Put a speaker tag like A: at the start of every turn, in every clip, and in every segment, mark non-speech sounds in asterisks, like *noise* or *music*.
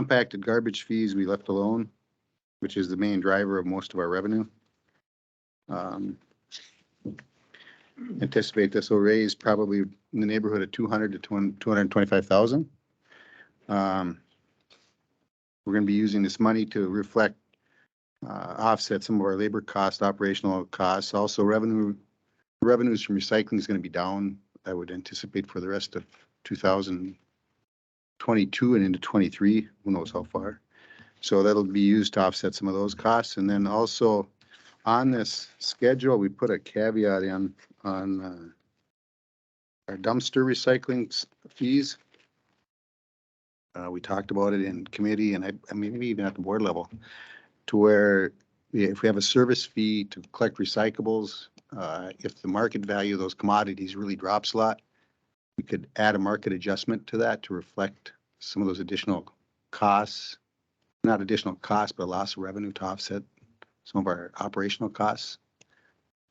A: compacted garbage fees we left alone, which is the main driver of most of our revenue. Um, Anticipate this will raise probably in the neighborhood of two hundred to two hundred and twenty-five thousand. We're going to be using this money to reflect, uh, offset some of our labor costs, operational costs, also revenue. Revenues from recycling is going to be down, I would anticipate for the rest of two thousand 22 and into 23, who knows how far. So that'll be used to offset some of those costs. And then also on this schedule, we put a caveat in on uh, our dumpster recycling s- fees. Uh, We talked about it in committee and I, I mean, maybe even at the board level, to where yeah, if we have a service fee to collect recyclables, uh, if the market value of those commodities really drops a lot, we could add a market adjustment to that to reflect some of those additional costs. Not additional costs, but loss of revenue to offset some of our operational costs.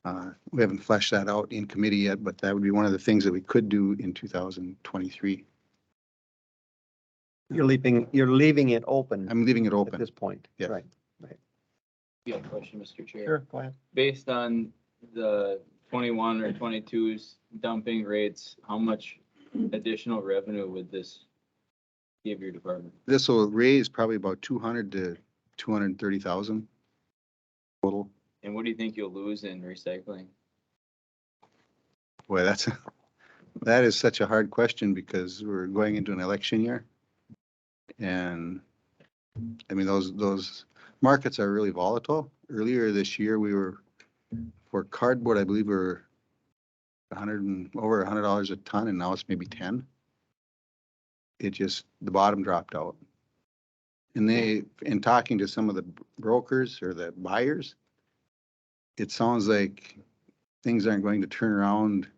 A: Uh, We haven't fleshed that out in committee yet, but that would be one of the things that we could do in 2023.
B: You're leaving, you're leaving it open
A: I'm leaving it
B: at
A: open.
B: this point.
A: Yeah.
B: Right.
C: Yeah, question, Mr. Chair.
B: Sure, go ahead.
C: Based on the twenty-one or 22's dumping rates, how much additional revenue would this give your department?
A: This will raise probably about 200 to 230,000 total.
C: And what do you think you'll lose in recycling?
A: Boy, that's, that is such a hard question because we're going into an election year. And, I mean, those, those markets are really volatile. Earlier this year, we were, for cardboard, I believe we were a hundred and, over a hundred dollars a ton, and now it's maybe ten. It just, the bottom dropped out. And they, in talking to some of the brokers or the buyers, it sounds like things aren't going to turn around.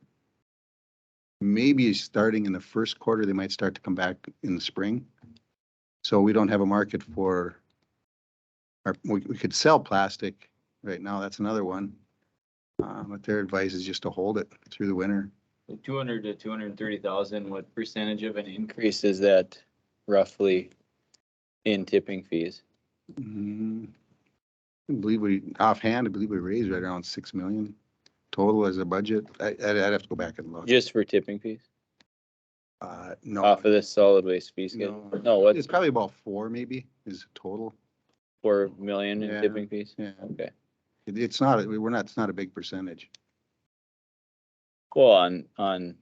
A: Maybe starting in the first quarter, they might start to come back in the spring. So we don't have a market for, or we, we could sell plastic right now, that's another one. Uh, but their advice is just to hold it through the winter.
C: Two hundred to two hundred and thirty thousand, what percentage of an increase is that roughly in tipping fees?
A: Mm, I believe we, offhand, I believe we raised right around six million total as a budget. I, I'd I'd have to go back and look.
C: Just for tipping fees,
A: Uh, no,
C: off of this solid waste fee schedule?
A: No.
C: No,
A: it's
C: what's
A: probably about four maybe is total.
C: four million in
A: Yeah.
C: tipping fees?
A: Yeah.
C: Okay.
A: It- It's not, we're not, it's not a big percentage.
C: Well, on, on,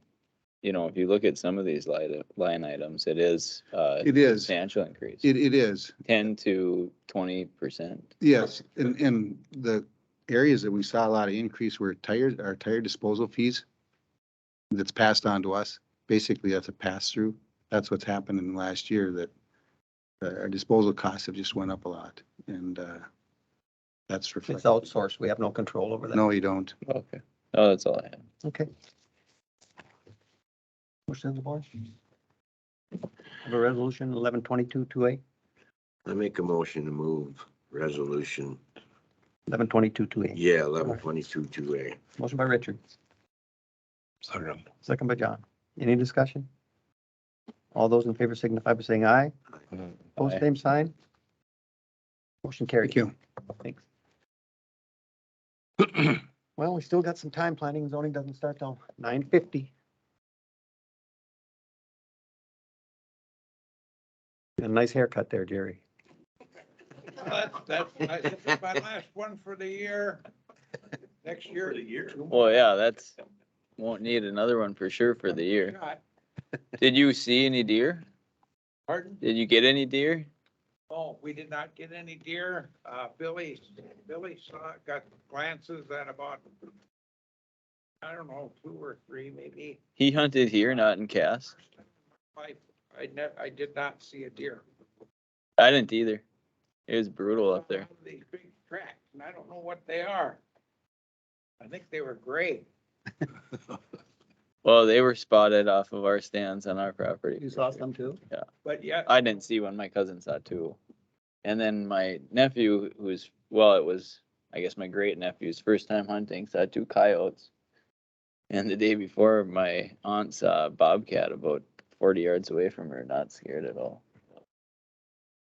C: you know, if you look at some of these line, line items, it is uh
A: It is, it,
C: substantial increase,
A: it is,
C: ten to twenty percent.
A: yes. And, and the areas that we saw a lot of increase were tire, our tire disposal fees that's passed on to us. Basically, that's a pass-through. That's what's happened in the last year that uh, our disposal costs have just went up a lot and, uh, that's
B: It's
A: reflected.
B: outsourced. We have no control over that.
A: No, you don't.
C: Okay. Oh, that's all I had.
B: Okay. Motion on the board? Have a resolution eleven twenty-two, two A,
D: I make a motion to move resolution,
B: eleven twenty-two, two A.
D: yeah, eleven twenty-two, two A.
B: Motion by Richard,
E: Second.
B: second by John. Any discussion? All those in favor signify by saying aye.
A: Mm-hmm.
B: Post
C: Aye.
B: same sign. Motion carried.
A: Thank you.
B: Thanks. *clears throat* Well, we still got some time. Planning and zoning doesn't start till nine fifty. A nice haircut there, Jerry.
F: That's, that's, I- this is my last one for the year. Next year. The year.
C: Well, yeah, that's, won't need another one for sure for the year. Did you see any deer?
F: Pardon?
C: Did you get any deer?
F: Oh, we did not get any deer. Uh, Billy, Billy saw, got glances at about, I don't know, two or three maybe.
C: He hunted here, not in Cass.
F: I, I never, I did not see a deer.
C: I didn't either. It was brutal up there.
F: These big tracks, and I don't know what they are. I think they were gray.
C: Well, they were spotted off of our stands on our property.
B: You saw some too?
F: But yeah,
C: I didn't see one. My cousin saw two. And then my nephew, who's, well, it was, I guess, my great nephew's first time hunting, saw two coyotes. And the day before, my aunt saw a bobcat about 40 yards away from her, not scared at all.